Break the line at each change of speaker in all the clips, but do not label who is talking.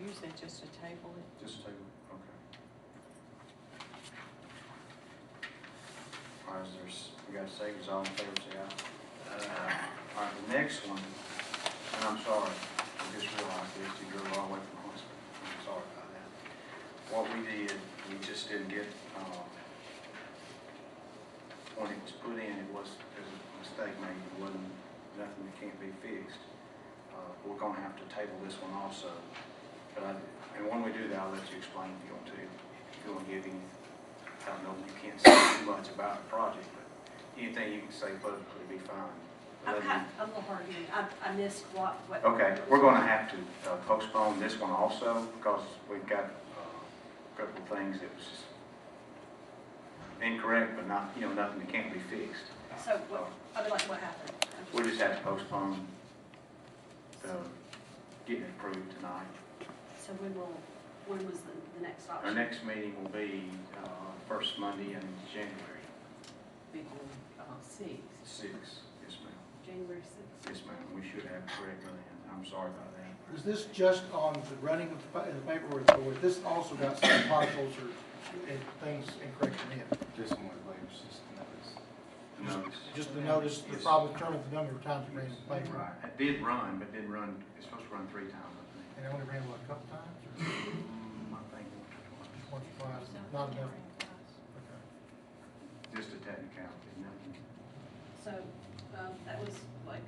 you said just to table it?
Just table, okay. All right, there's, we got savings, all in favor, say aye. Uh, All right, the next one, and I'm sorry, I just realized this, you go all the way from hospital, I'm sorry about that. What we did, we just didn't get, uh, when it was put in, it was, there's a mistake made, it wasn't, nothing that can't be fixed. Uh, We're gonna have to table this one also, but I, and when we do that, I'll let you explain if you want to, if you want to give any, I don't know, you can't say too much about the project, but anything you can say publicly would be fine.
I'm
Other
kind,
than-
I'm a little hard to, I, I missed what, what.
Okay, we're gonna have to uh, postpone this one also, because we've got uh, a couple of things that was just incorrect, but not, you know, nothing that can't be fixed.
So, what, I mean, like, what happened? I'm just-
We just have to postpone, uh, getting it approved tonight.
So when will, when was the, the next option?
Our next meeting will be uh, first Monday in January.
Big one, uh, six.
Six, yes, ma'am.
January sixth.
Yes, ma'am, we should have correct land. I'm sorry about that.
Is this just on the running of the pa- the paperwork, or is this also got some potholes or, and things incorrect in it?
This one was later, it's just notice.
Notice.
Just to notice the problem determined the number of times you ran the paper,
Right, it did run, but didn't run, it's supposed to run three times, I
and I only ran, what, a couple times, or
think. Mm, I think once
once or twice, not enough?
or twice. Just a technicality, nothing.
So, um, that was like,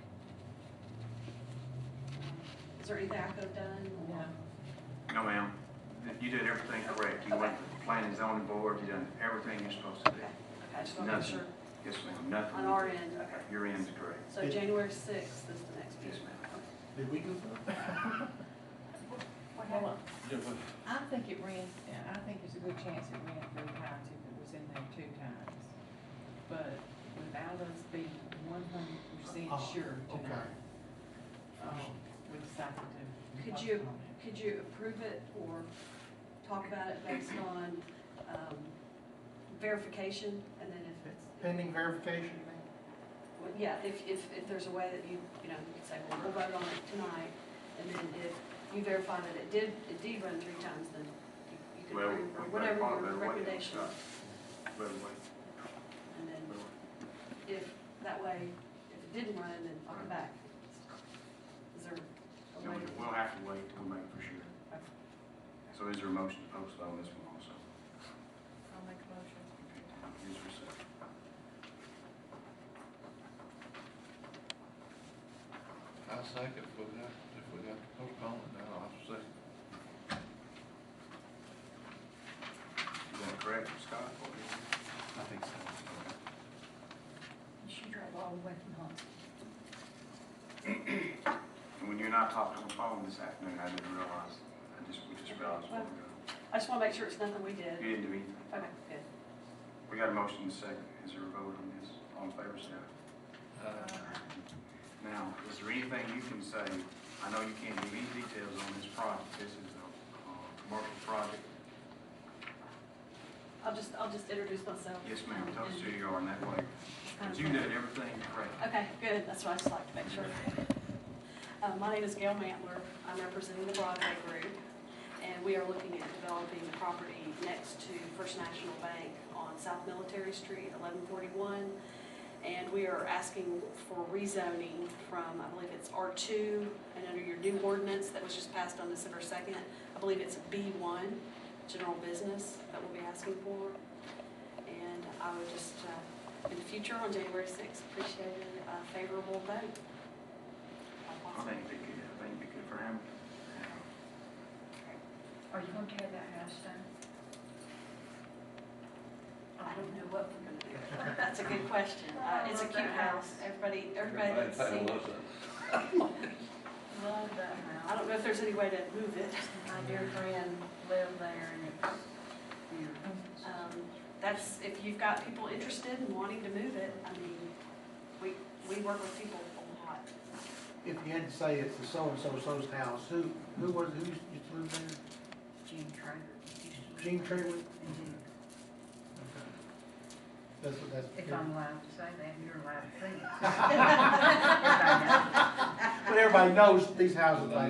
is there anything I could have done? or-
No, ma'am, you did everything correct. You went to the planning and zoning board, you done everything you're supposed to do.
Okay, okay, I just want to make
Nothing.
sure.
Yes, ma'am, nothing.
On our end, okay.
Your end's correct.
So January sixth is the next
Yes,
meeting.
ma'am.
Did we go through?
What happened?
I think it ran, yeah, I think there's a good chance it ran three times if it was in there two times. But without us being one hundred percent
Oh,
sure
okay.
tonight, um, we decided to.
Could you-
postpone it.
Could you approve it or talk about it based on, um, verification? And then if it's.
Pending verification, ma'am?
Well, Yeah, if, if, if there's a way that you, you know, you could say, well, we'll vote on it tonight, and then if you verify that it did, it did run three times, then you- you could
Well,
approve, or
we
whatever
better-
your
better wait on
recommendation.
stuff. Better wait,
And then
better wait.
if, that way, if it didn't run, then I'll come back. Is there a
No,
way?
We'll have to wait till we make for sure. So is there a motion to postpone this one also?
I'll make a motion.
Is there a second?
I second, if we got, if we got to postpone it, then I'll second.
Is that correct, Scott? What do you think?
I think so.
You should drive all the way from home.
And when you and I talked on the phone this afternoon, I didn't realize, I just, we just realized. what we got.
I just wanna make sure it's nothing we did.
You didn't do anything.
Okay, good.
We got a motion and a second. Is there a vote on this? All in favor, say aye. Now, is there anything you can say, I know you can't give any details on this project, this is a, uh, commercial project.
I'll just, I'll just introduce myself.
Yes, ma'am, tell us who you are in that way.
Um,
But you did everything correct.
Okay, good, that's what I just like to make sure. Uh, My name is Gail Mantler, I'm representing the Broadway Group, and we are looking at developing the property next to First National Bank on South Military Street, 1141. And we are asking for rezoning from, I believe it's R2, and under your new ordinance that was just passed on December 2nd, I believe it's B1, general business, that we'll be asking for. And I would just uh, in the future on January 6th. Appreciate a favorable vote.
I think it'd be good, I think it'd be good for Hamilton.
Are you gonna tear that house down?
I don't know what we're going to do. That's a good question. Uh, It's a cute house. Everybody, everybody that's seen it.
Love that
I
house.
don't know if there's any way to move it.
My dear friend lived there and it's beautiful.
Um, That's, if you've got people interested in wanting to move it, I mean, we, we work with people a lot.
If you had to say it's the so-and-so, so's house, who, who was, who used to live there?
uh, Gene Trader.
Gene Trailer?
Mhm.
That's, that's.
If I'm allowed to say that, you're allowed to say it.
But everybody knows these houses, they